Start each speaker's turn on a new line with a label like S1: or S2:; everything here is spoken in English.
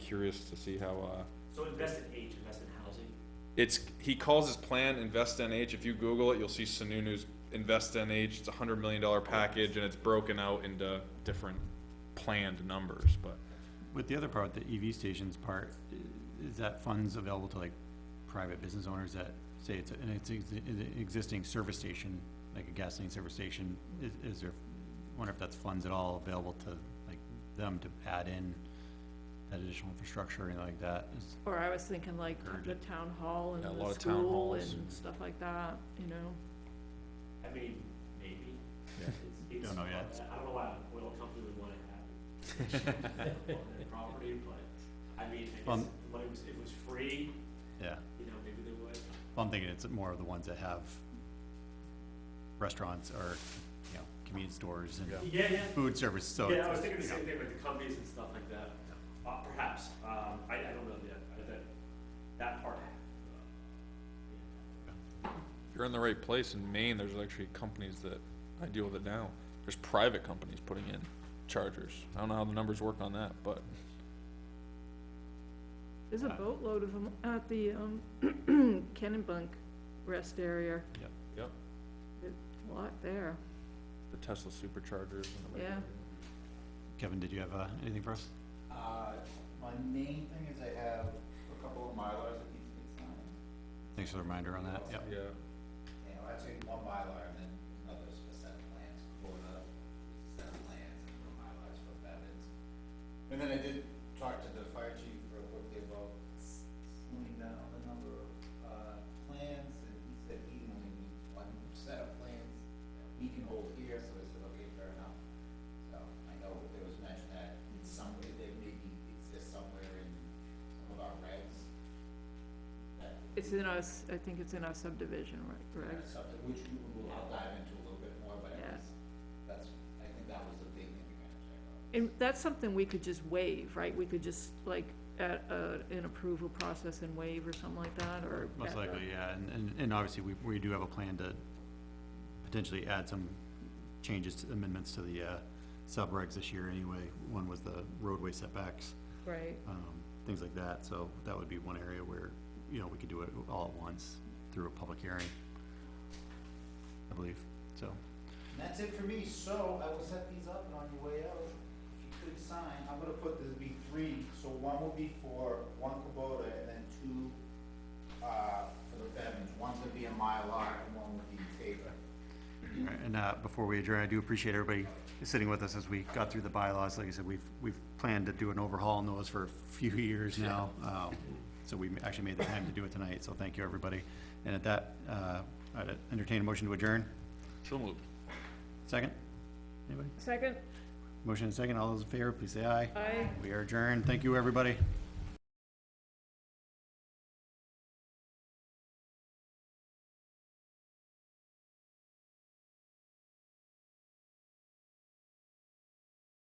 S1: curious to see how, uh,
S2: So invest in age, invest in housing.
S1: it's, he calls his plan Invest NH. If you Google it, you'll see Sununu's Invest NH. It's a hundred million dollar package and it's broken out into different planned numbers, but
S3: With the other part, the EV stations part, i- is that funds available to like private business owners that say it's, a- and it's ex- an existing service station, like a gasoline service station, is, is there, wonder if that's funds at all available to, like, them to add in that additional infrastructure or anything like that? Is-
S4: Or I was thinking like
S3: Encourage
S4: the town hall and
S1: Yeah, a lot
S4: the
S1: of town
S4: school
S1: halls.
S4: and stuff like that, you know?
S2: I mean, maybe.
S1: Yeah.
S2: It's- it's-
S3: Don't know yet.
S2: I don't know why an oil company would want to have it on their property, but, I mean, I guess
S3: Um,
S2: if the money was, if it was free,
S3: Yeah,
S2: you know, maybe they would.
S3: well, I'm thinking it's more of the ones that have restaurants or, you know, convenience stores and
S2: Yeah, yeah.
S3: food service, so.
S2: Yeah, I
S3: it's-
S2: was thinking the
S3: yeah.
S2: same thing, like the companies and stuff like that, uh, perhaps, um, I, I don't know yet, I- that, that part.
S1: you're in the right place. In Maine, there's actually companies that, I deal with it now. There's private companies putting in chargers. I don't know how the numbers work on that, but
S4: There's a boatload of them at the, um, Kennebunk rest area.
S3: Yep.
S1: Yep.
S4: There's A lot there,
S1: the Tesla superchargers and the.
S4: yeah.
S3: Kevin, did you have, uh, anything for us?
S5: Uh, my main thing is I have a couple of Mylars that need to get signed.
S3: Thanks for the reminder on that, yep.
S1: Yeah,
S5: You know, actually one Mylar and then another's for set of plans for the set of plans and one Mylar's for Bevins. And then I did talk to the fire chief real quickly about s- slimming down the number of, uh, plans and he said he only needs one set of plans that we can hold here, so I said, okay, fair enough. So I know there was mention that in some way they maybe exist somewhere in some of our regs that
S4: It's in us, I think it's in our subdivision, right,
S5: or
S4: right?
S5: something, which we will, I'll dive into a little bit more, but it
S4: Yeah.
S5: was, that's, I think that was the big thing we gotta check out.
S4: And that's something we could just waive, right? We could just like, at, uh, an approval process and waive or something like that, or.
S3: Most likely, yeah, and, and, and obviously, we, we do have a plan to potentially add some changes, to amendments to the, uh, subregs this year anyway. One was the roadway setbacks,
S4: Right,
S3: um, things like that, so that would be one area where, you know, we could do it all at once through a public hearing. I believe, so,
S5: And that's it for me, so I will set these up and on your way out, if you could sign, I'm gonna put, there'll be three, so one will be for one Kubota and then two, uh, for the Bevins, one's gonna be a Mylar and one will be Tabor.
S3: all right, and, uh, before we adjourn, I do appreciate everybody sitting with us as we got through the bylaws. Like I said, we've, we've planned to do an overhaul on those for a few years now. Um, So we actually made the time to do it tonight, so thank you, everybody. And at that, uh, I'd entertain a motion to adjourn.
S1: so moved.
S3: Second? Anybody?
S4: second,
S3: Motion and second, all those in favor, please say aye.
S4: I.
S3: We are adjourned. Thank you, everybody.